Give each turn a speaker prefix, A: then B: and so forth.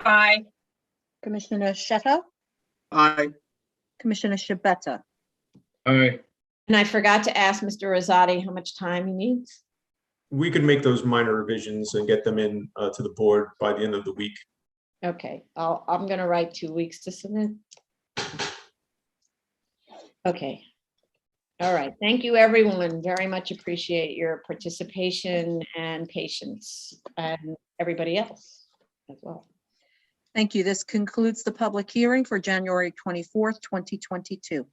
A: Aye.
B: Commissioner Shetto,
C: Aye.
B: Commissioner Shabeta.
D: Aye.
E: And I forgot to ask Mr. Rosati how much time he needs.
F: We could make those minor revisions and get them in uh, to the board by the end of the week.
E: Okay, I'll, I'm gonna write two weeks to submit. Okay. All right, thank you, everyone. Very much appreciate your participation and patience and everybody else as well.
B: Thank you. This concludes the public hearing for January 24th, 2022.